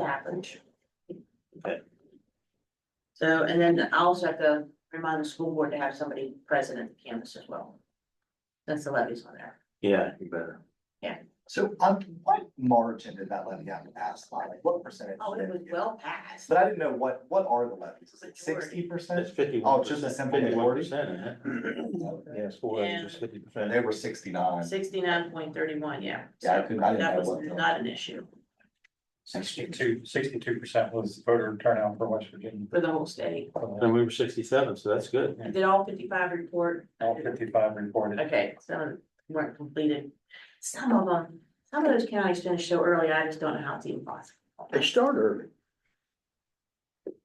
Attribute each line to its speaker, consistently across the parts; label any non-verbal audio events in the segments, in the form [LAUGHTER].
Speaker 1: happened. So, and then I also have to remind the school board to have somebody present at the campus as well. That's the levies on there.
Speaker 2: Yeah, you better.
Speaker 3: So on what margin did that levy have to pass by? Like what percentage?
Speaker 1: Oh, it
Speaker 3: did
Speaker 1: was
Speaker 3: get?
Speaker 1: well passed.
Speaker 3: But I didn't know what, what are the levies? Is
Speaker 1: Majority.
Speaker 3: it sixty
Speaker 2: That's
Speaker 3: percent?
Speaker 2: fifty-one.
Speaker 3: Oh, just a simple Mm-hmm. majority?
Speaker 2: percent, isn't it? Yeah, school
Speaker 1: Yeah.
Speaker 2: levy is fifty percent.
Speaker 3: They were sixty-nine.
Speaker 1: Sixty-nine point thirty-one, yeah.
Speaker 3: Yeah, I couldn't, I didn't
Speaker 1: That
Speaker 3: know
Speaker 1: was
Speaker 3: what. the-
Speaker 1: not an issue
Speaker 4: Sixty-two, sixty-two percent was voter turnout for West Virginia.
Speaker 1: for the whole state.
Speaker 2: And we were sixty-seven, so that's good.
Speaker 1: Did all fifty-five report?
Speaker 4: All fifty-five reported.
Speaker 1: Okay, some weren't completed. Some of them, some of those counties finished so early, I just don't know how it's even possible.
Speaker 5: They start early.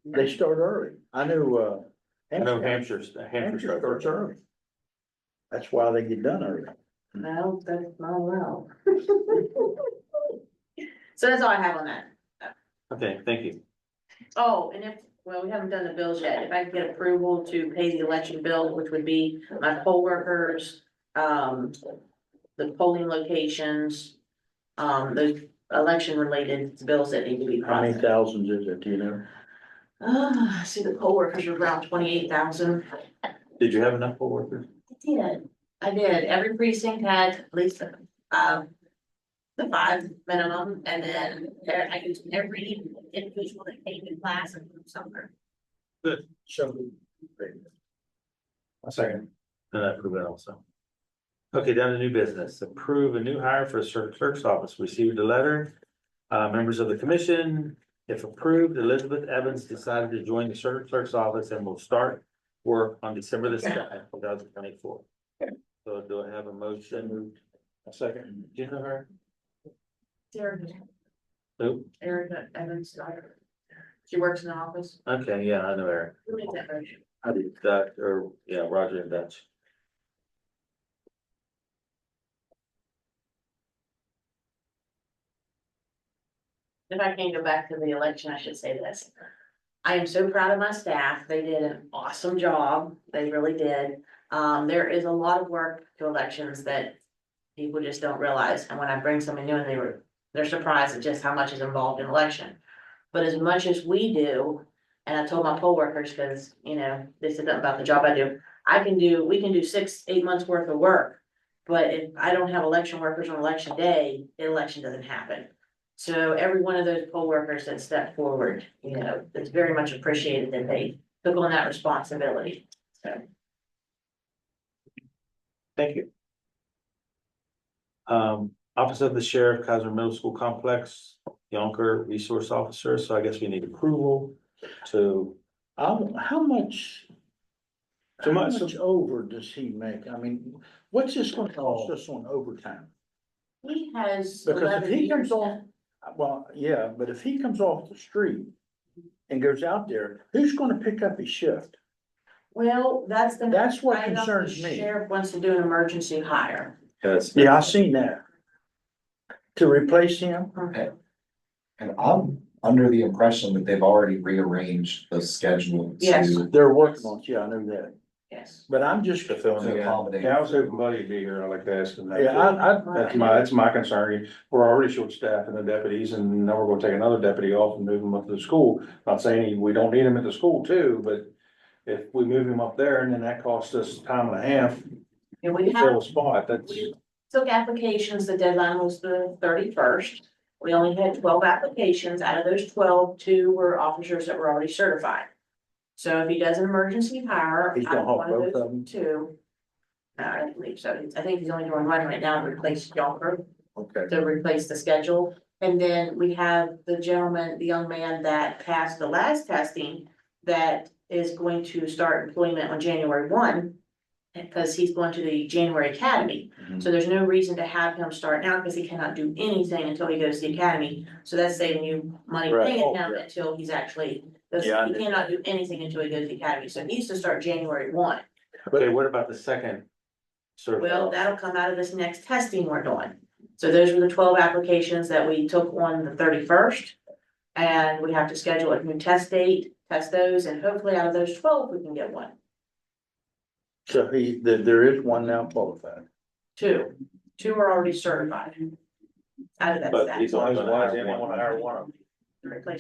Speaker 5: They start early. I knew, uh.
Speaker 2: I know Hampshire's, Hampshire.
Speaker 5: Hampshire starts early. That's why they get done early.
Speaker 1: No, that's not well. [LAUGHS] So that's all I have on that.
Speaker 2: Okay, thank you.
Speaker 1: Oh, and if, well, we haven't done the bills yet. If I could get approval to pay the election bill, which would be my poll workers, um, the polling locations, um, the election related bills that need to be
Speaker 5: How many
Speaker 1: processed.
Speaker 5: thousands is it, do you know?
Speaker 1: Ah, I see the poll workers are around twenty-eight thousand.
Speaker 2: Did you have enough poll workers?
Speaker 1: I did, I did. Every precinct had at least, um, the five minimum, and then there, I used every individual that came in class and from somewhere.
Speaker 5: So.
Speaker 4: A second.
Speaker 2: No, that proved it also. Okay, down to new business. Approve a new hire for clerk- clerk's office. Received a letter. Uh, members of the commission, if approved, Elizabeth Evans decided to join the clerk- clerk's office and will start work on December the second, two thousand twenty-four. So do I have a motion? A second. Do you know her?
Speaker 1: Erica,
Speaker 2: Who?
Speaker 1: Erica Evans' daughter. She works in the office.
Speaker 2: Okay, yeah, I know her.
Speaker 1: Who made that motion?
Speaker 2: I did. Doc, or, yeah, Roger and Dutch.
Speaker 1: If I can go back to the election, I should say this. I am so proud of my staff. They did an awesome job. They really did. Um, there is a lot of work to elections that people just don't realize. And when I bring someone new and they were, they're surprised at just how much is involved in election. But as much as we do, and I told my poll workers, because, you know, they said something about the job I do, I can do, we can do six, eight months worth of work. But if I don't have election workers on election day, the election doesn't happen. So every one of those poll workers that stepped forward, you know, it's very much appreciated that they took on that responsibility. So
Speaker 2: Thank you. Um, Office of the Sheriff, Kaiser Middle School Complex, Yonker Resource Officer, so I guess we need approval to.
Speaker 5: Um, how much?
Speaker 2: So
Speaker 5: How
Speaker 2: my-
Speaker 5: much over does he make? I mean, what's this gonna cost us on overtime?
Speaker 1: he has.
Speaker 5: Because if
Speaker 1: 11
Speaker 5: he comes
Speaker 1: years
Speaker 5: off, Uh, well, yeah, but if he comes off the street and goes out there, who's gonna pick up his shift?
Speaker 1: Well, that's the.
Speaker 5: That's what
Speaker 1: I know the
Speaker 5: concerns me.
Speaker 1: Sheriff wants to do an emergency hire.
Speaker 2: Yes.
Speaker 5: Yeah, I seen that. To replace him?
Speaker 3: And I'm under the impression that they've already rearranged the schedule
Speaker 1: Yes.
Speaker 3: to.
Speaker 5: They're working on, it. yeah, I know that,
Speaker 1: Yes.
Speaker 5: but I'm just,
Speaker 6: To fill in the
Speaker 3: To
Speaker 6: gap.
Speaker 3: accommodate.
Speaker 6: Yeah, I was hoping Buddy would be here, I like to ask him that.
Speaker 5: yeah, I, I,
Speaker 6: That's my, that's my concern, we're already short staffed in the deputies, and now we're gonna take another deputy off and move him up to the school. Not saying we don't need him at the school too, but if we move him up there and then that costs us time and a half
Speaker 1: And we
Speaker 6: to
Speaker 1: have
Speaker 6: fill a spot, that's.
Speaker 1: We took applications, the deadline was the thirty-first. We only had twelve applications. Out of those twelve, two were officers that were already certified. So if he does an emergency hire,
Speaker 5: He's gonna
Speaker 1: I'm
Speaker 5: haul
Speaker 1: one of
Speaker 5: both of
Speaker 1: those
Speaker 5: them.
Speaker 1: two. Uh, I don't believe so. I think he's only doing one right now to replace Yonker,
Speaker 5: Okay,
Speaker 1: to replace the schedule. And then we have the gentleman, the young man that passed the last testing that is going to start employment on January one. Because he's going to the January academy.
Speaker 5: Mm-hmm.
Speaker 1: So there's no reason to have him start now because he cannot do anything until he goes to the academy. So that's saving you money
Speaker 5: Right.
Speaker 1: paying him
Speaker 5: Oh, yeah.
Speaker 1: until he's actually, because he
Speaker 5: Yeah, I
Speaker 1: cannot do anything until he goes to the academy. So he needs to start January one.
Speaker 2: Okay, what about the second?
Speaker 1: Well,
Speaker 2: Certified,
Speaker 1: that'll come out of this next testing we're doing. So those were the twelve applications that we took on the thirty-first. And we have to schedule a new test date, test those, and hopefully out of those twelve, we can get one,
Speaker 5: so he, there, there is one now qualified.
Speaker 1: two. Two are already certified. Out of that
Speaker 2: but
Speaker 1: stack.
Speaker 2: he's only gonna
Speaker 6: Why is
Speaker 2: hire
Speaker 6: anyone
Speaker 2: one.
Speaker 6: hire one of them?
Speaker 1: Replace